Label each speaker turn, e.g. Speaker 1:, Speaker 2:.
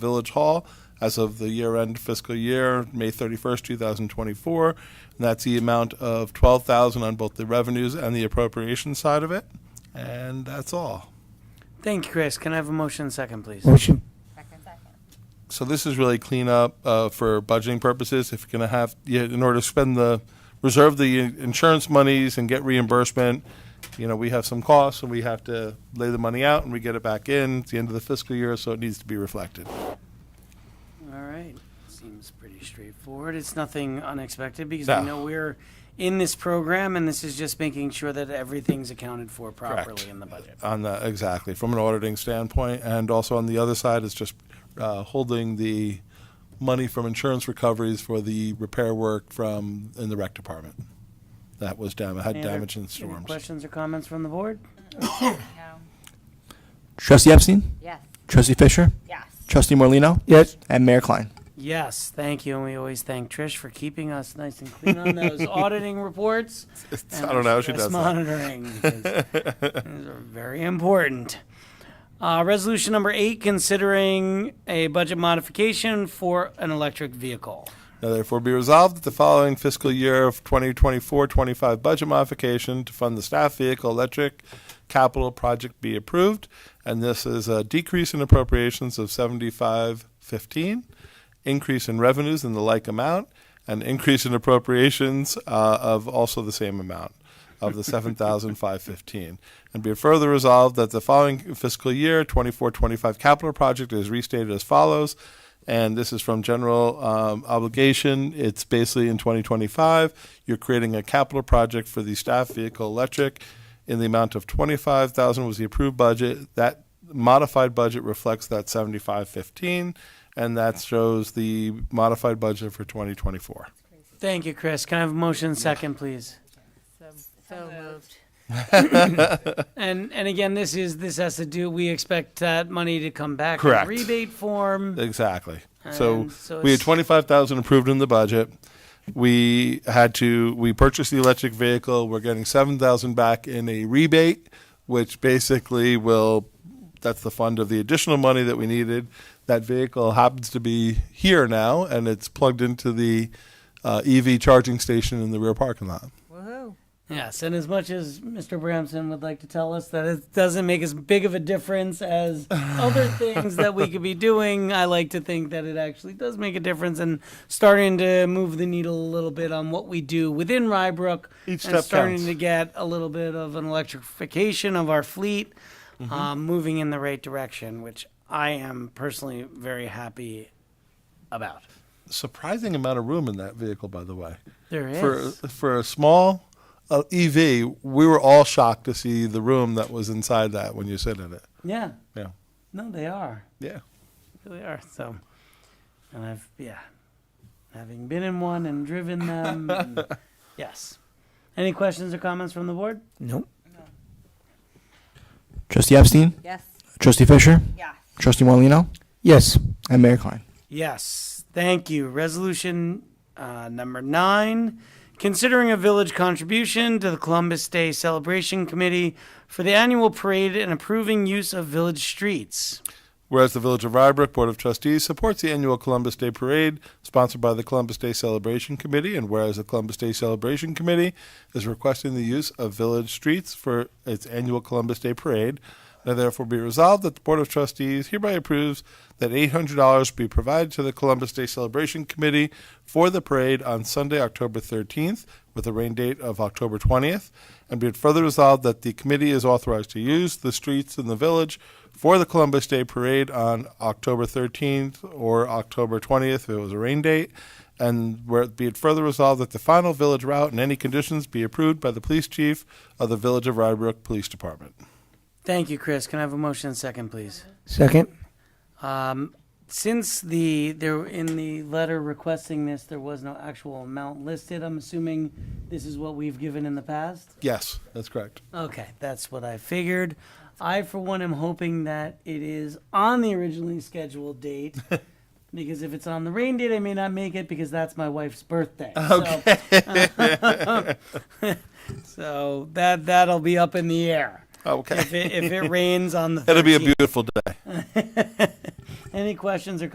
Speaker 1: Village Hall as of the year-end fiscal year, May 31st, 2024. And that's the amount of 12,000 on both the revenues and the appropriation side of it. And that's all.
Speaker 2: Thank you, Chris. Can I have a motion and second, please?
Speaker 3: Motion.
Speaker 1: So this is really cleanup uh, for budgeting purposes. If you're going to have, yeah, in order to spend the, reserve the insurance monies and get reimbursement, you know, we have some costs and we have to lay the money out and we get it back in. It's the end of the fiscal year, so it needs to be reflected.
Speaker 2: All right. Seems pretty straightforward. It's nothing unexpected because
Speaker 1: No.
Speaker 2: we know we're in this program and this is just making sure that everything's accounted for properly in the budget.
Speaker 1: On the, exactly, from an auditing standpoint, and also on the other side is just uh, holding the money from insurance recoveries for the repair work from, in the rec department. That was dam, had
Speaker 2: Any other-
Speaker 1: damage in
Speaker 2: any
Speaker 1: storms.
Speaker 2: Questions or comments from the board?
Speaker 4: No.
Speaker 5: Trustee Epstein?
Speaker 4: Yes.
Speaker 5: Trustee Fisher?
Speaker 4: Yes.
Speaker 5: Trustee Morlino,
Speaker 3: Yes.
Speaker 5: And Mayor Klein.
Speaker 2: Yes, thank you. And we always thank Trish for keeping us nice and clean on those auditing reports.
Speaker 1: It's-
Speaker 2: and
Speaker 1: I don't know how she
Speaker 2: stress
Speaker 1: does that.
Speaker 2: monitoring. because These are very important. Uh, resolution number eight, considering a budget modification for an electric vehicle.
Speaker 1: Now therefore be resolved that the following fiscal year of 2024-25 budget modification to fund the staff vehicle electric capital project be approved. And this is a decrease in appropriations of 7515, increase in revenues in the like amount, and increase in appropriations uh, of also the same amount of the 7,515. And be it further resolved that the following fiscal year, 24-25 capital project is restated as follows. And this is from general um, obligation. It's basically in 2025, you're creating a capital project for the staff vehicle electric in the amount of 25,000 was the approved budget. That modified budget reflects that 7515 and that shows the modified budget for 2024.
Speaker 2: Thank you, Chris. Can I have a motion second, please?
Speaker 4: So moved.
Speaker 2: And and again, this is this has to do. We expect that money to come back
Speaker 1: Correct.
Speaker 2: in rebate form.
Speaker 1: Exactly. So,
Speaker 2: And so
Speaker 1: we had
Speaker 2: it's-
Speaker 1: twenty-five thousand approved in the budget. We had to, we purchased the electric vehicle. We're getting seven thousand back in a rebate, which basically will, that's the fund of the additional money that we needed. That vehicle happens to be here now and it's plugged into the uh, EV charging station in the rear parking lot.
Speaker 4: Woohoo.
Speaker 2: Yes, and as much as Mr. Bramson would like to tell us that it doesn't make as big of a difference as other things that we could be doing, I like to think that it actually does make a difference and starting to move the needle a little bit on what we do within Rybrook
Speaker 1: Each
Speaker 2: and
Speaker 1: step
Speaker 2: starting
Speaker 1: counts.
Speaker 2: to get a little bit of an electrification of our fleet,
Speaker 1: Mm-hmm.
Speaker 2: um, moving in the right direction, which I am personally very happy about.
Speaker 1: Surprising amount of room in that vehicle, by the way.
Speaker 2: There is.
Speaker 1: for uh, for a small uh, EV, we were all shocked to see the room that was inside that when you sit in it.
Speaker 2: yeah.
Speaker 1: Yeah,
Speaker 2: No, they are.
Speaker 1: yeah.
Speaker 2: really are. So, and I've yeah, having been in one and driven them. and- yes. Any questions or comments from the board?
Speaker 3: Nope.
Speaker 5: Trustee Epstein?
Speaker 4: Yes.
Speaker 5: Trustee Fisher?
Speaker 4: Yes.
Speaker 5: Trustee Morlino,
Speaker 3: Yes.
Speaker 5: And Mayor Klein.
Speaker 2: Yes. Thank you. Resolution uh, number nine. Considering a village contribution to the Columbus Day Celebration Committee for the annual parade and approving use of village streets.
Speaker 1: Whereas the Village of Rybrook Board of Trustees supports the annual Columbus Day Parade sponsored by the Columbus Day Celebration Committee, and whereas the Columbus Day Celebration Committee is requesting the use of village streets for its annual Columbus Day Parade, now therefore be resolved that the Board of Trustees hereby approves that $800 be provided to the Columbus Day Celebration Committee for the parade on Sunday, October 13th, with a rain date of October 20th, and be it further resolved that the committee is authorized to use the streets in the village for the Columbus Day Parade on October 13th or October 20th if it was a rain date, and where it be it further resolved that the final village route in any conditions be approved by the police chief of the Village of Rybrook Police Department.
Speaker 2: Thank you, Chris. Can I have a motion and second, please?
Speaker 3: Second.
Speaker 2: Um, since the there in the letter requesting this, there was no actual amount listed. I'm assuming this is what we've given in the past.
Speaker 1: Yes, that's correct.
Speaker 2: Okay, that's what I figured. I, for one, am hoping that it is on the originally scheduled date. Because if it's on the rain date, I may not make it because that's my wife's birthday. Okay. So, so that that'll be up in the air
Speaker 1: Okay.
Speaker 2: if it, if it rains on the.
Speaker 1: It'll be a
Speaker 2: 13th.
Speaker 1: beautiful day.
Speaker 2: Any questions or